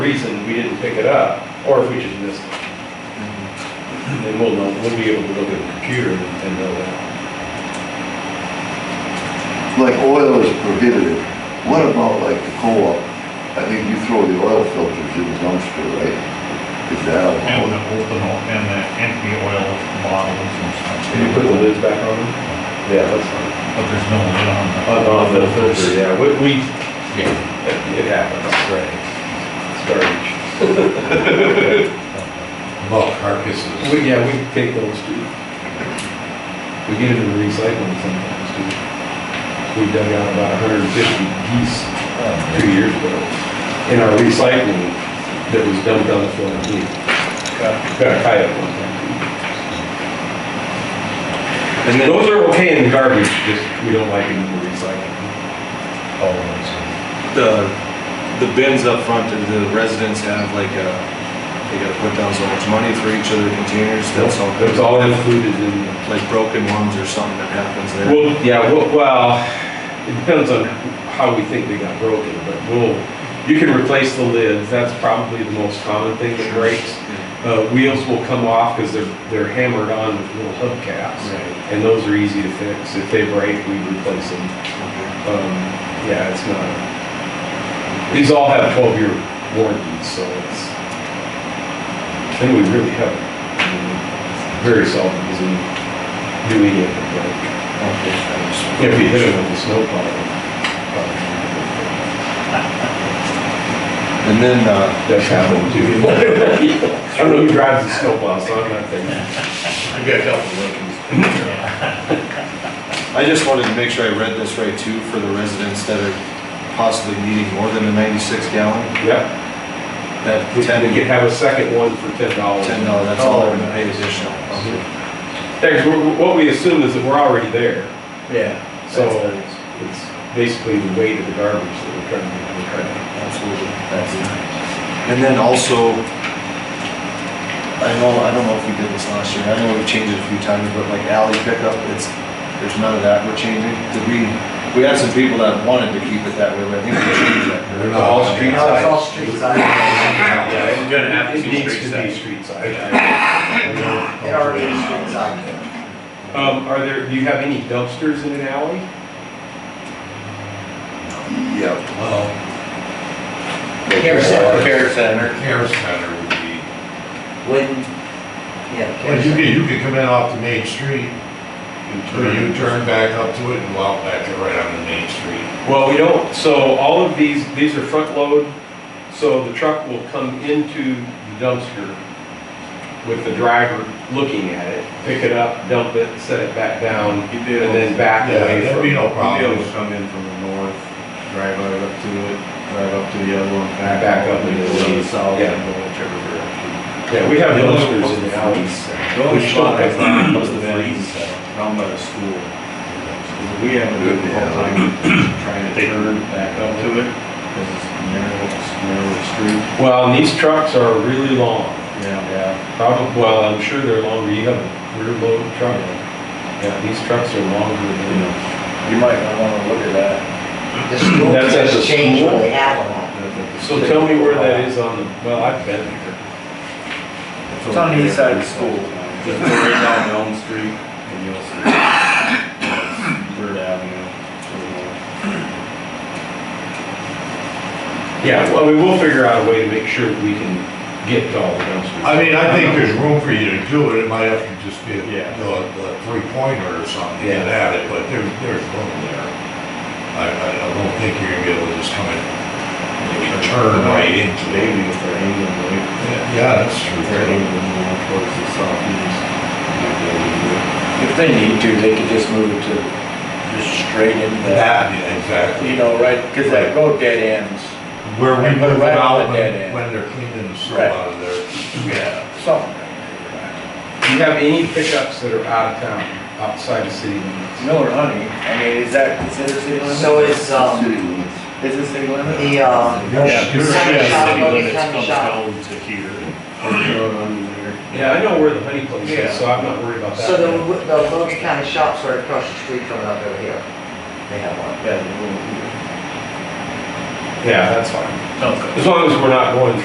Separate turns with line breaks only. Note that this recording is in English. reason we didn't pick it up, or if we just missed it. Then we'll know, we'll be able to look at the computer and and know that.
Like oil is prohibited. What about like the co-op? I think you throw the oil filters in the dumpster, right? Is that
And the
allowed?
open, o- and the empty oil bottles and stuff.
Can you put the lids back on them? Yeah, that's fine.
But there's no lid on the.
On the filter, yeah, we, we,
Yeah.
it happens. Right. Storage.
Bulk carcasses.
We, yeah, we take those too. We get into the recycling sometimes too. We dug out about hundred and fifty geese uh, two years ago in our recycling that was dumped on the floor. We Got a coyote one time. And then those are okay in the garbage, just we don't like it in the recycling. All of Oh, those.
the, the bins up front, do the residents have like a, they gotta put down so much money for each of their containers, that's all good.
It's all included in the
Like broken ones or something that happens there.
Well, yeah, well, well, it depends on how we think they got broken, but we'll, you can replace the lids, that's probably the most common thing that breaks. Uh, wheels will come off because they're, they're hammered on with little hubcaps.
Right.
And those are easy to fix. If they break, we replace them.
Okay.
Um, yeah, it's not, these all have twelve-year warranties, so it's, and we really have, I mean, very seldom does E we do any of it, like,
Okay, thanks.
if you hit it with a snow plow.
And then, uh,
That's happened too. I don't know who drives the snow plow, so I'm not thinking.
I've got a couple of them.
I just wanted to make sure I read this right too, for the residents that are possibly needing more than a ninety-six gallon,
Yep,
that
we
ten,
could have a second one for ten dollars.
ten dollar, that's all they're gonna pay additional. Okay.
Thanks, We're- what we assume is that we're already there,
Yeah,
so it's basically the weight of the garbage that we're trying to, we're trying to.
absolutely, that's And then also, I know, I don't know if we did this last year, I know we've changed it a few times, but like alley pickup, it's, there's none of that we're changing. Did we, we had some people that wanted to keep it that way, but I think we changed that.
They're not all
street
No, it's all street side.
Yeah,
We're gonna have
It
two
needs
street
to be
sides.
street side.
It already is street side.
Um, are there, do you have any dumpsters in an alley?
Yeah.
Well,
Care center.
Care center. Care center would be.
When, yeah. care
Well, you
center.
could, you could come in off the main street, or you turn back up to it and go out back to right on the main street.
Well, we don't, so all of these, these are front load, so the truck will come into the dumpster with the driver looking at it, pick it up, dump it, set it back down, and then back
Yeah,
away
that'd
from.
be no
Be able
problem.
to come in from the north, drive right up to it, drive up to the other one, back.
Back up
out
into
go
the-
to south
yeah.
and go whichever direction.
Yeah, we have dumpsters in the alleys.
The only
Which
spot I
one?
found was the bins down by the school. We have a good
Yeah.
time trying to turn back up to it, because it's narrow, it's narrow street.
Well, and these trucks are really long,
Yeah.
probably, well, I'm sure they're longer, you have a rear load truck. Yeah, these trucks are longer than,
You might not wanna look at that.
The school
That's at the
just changed when
school?
they had one.
so tell me where that is on the, well, I've been there.
It's on the east side of the school. Just go right down Elm Street and you'll see. Bird Avenue.
Yeah, well, we will figure out a way to make sure that we can get to all the dumpsters.
I mean, I think there's room for you to do it, it might have to just be a,
Yeah.
a three pointer or something, to get
Yeah.
at it, but there, there's room there. I, I I don't think you're gonna be able to just come in, and turn right into it.
Maybe if they're angling, like,
Yeah, that's
if they're
true.
angling more towards the southeast. you'd be able to do it.
If they need to, they could just move it to, just straight into that,
That, yeah, exactly.
you know, right, because that road dead ends.
Where we
And put it
move it
right on
out
the dead
when,
end.
when they're cleaning the snow
Right.
out of there.
Yeah. Something.
Do you have any pickups that are out of town, outside of city limits?
Miller Honey, I mean, is that considered city limits?
So it's,
uh,
um,
City limits.
Is it city limits?
the, um,
Yeah,
City limits comes
to here.
Road on there.
Yeah, I know where the honey place is, so I'm not worried about that.
so the, the Logan County shops are across the street from it up over here. They have one.
Yeah, the little-
Yeah, that's fine. As long as we're not going